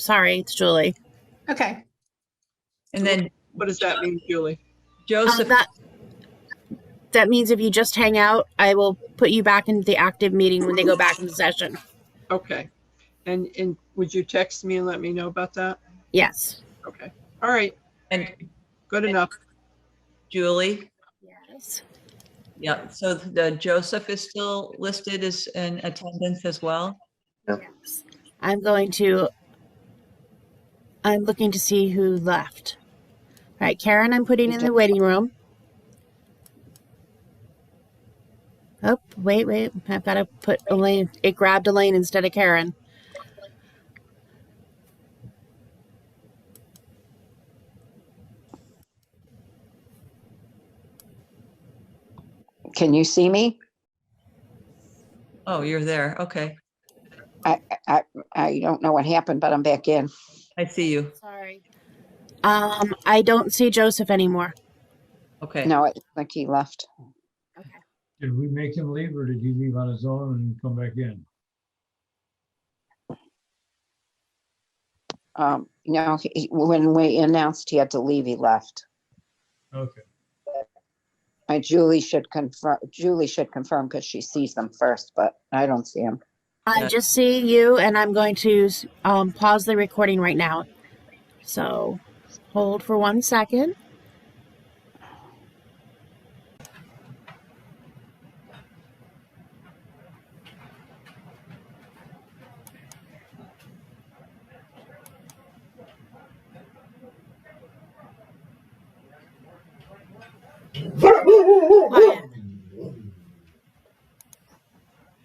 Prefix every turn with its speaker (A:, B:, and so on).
A: Sorry, it's Julie.
B: Okay.
C: And then
D: What does that mean, Julie?
A: Um,
C: Joseph,
A: that, that means if you just hang out, I will put you back into the active meeting when they go back into session.
D: Okay. And, and would you text me and let me know about that?
A: Yes.
D: Okay. All right.
C: and
D: Good enough.
C: Julie.
A: Yes.
C: Yeah, so the Joseph is still listed as in attendance as well.
A: yes. I'm going to. I'm looking to see who left. All right, Karen, I'm putting in the waiting room. Oh, wait, wait. I've got to put Elaine. It grabbed Elaine instead of Karen.
E: Can you see me?
C: Oh, you're there. Okay,
E: I don't know what happened, but I'm back in.
C: I see you.
A: Sorry. Um, I don't see Joseph anymore.
C: Okay.
E: No, it's like he left.
F: Did we make him leave or did he leave on his own and come back in?
E: Um, no, he- when we announced he had to leave, he left.
F: Okay,
E: Uh, Julie should confirm, Julie should confirm because she sees them first, but I don't see him.
A: I
C: Yeah.
A: just see you, and I'm going to um, pause the recording right now. So hold for one second.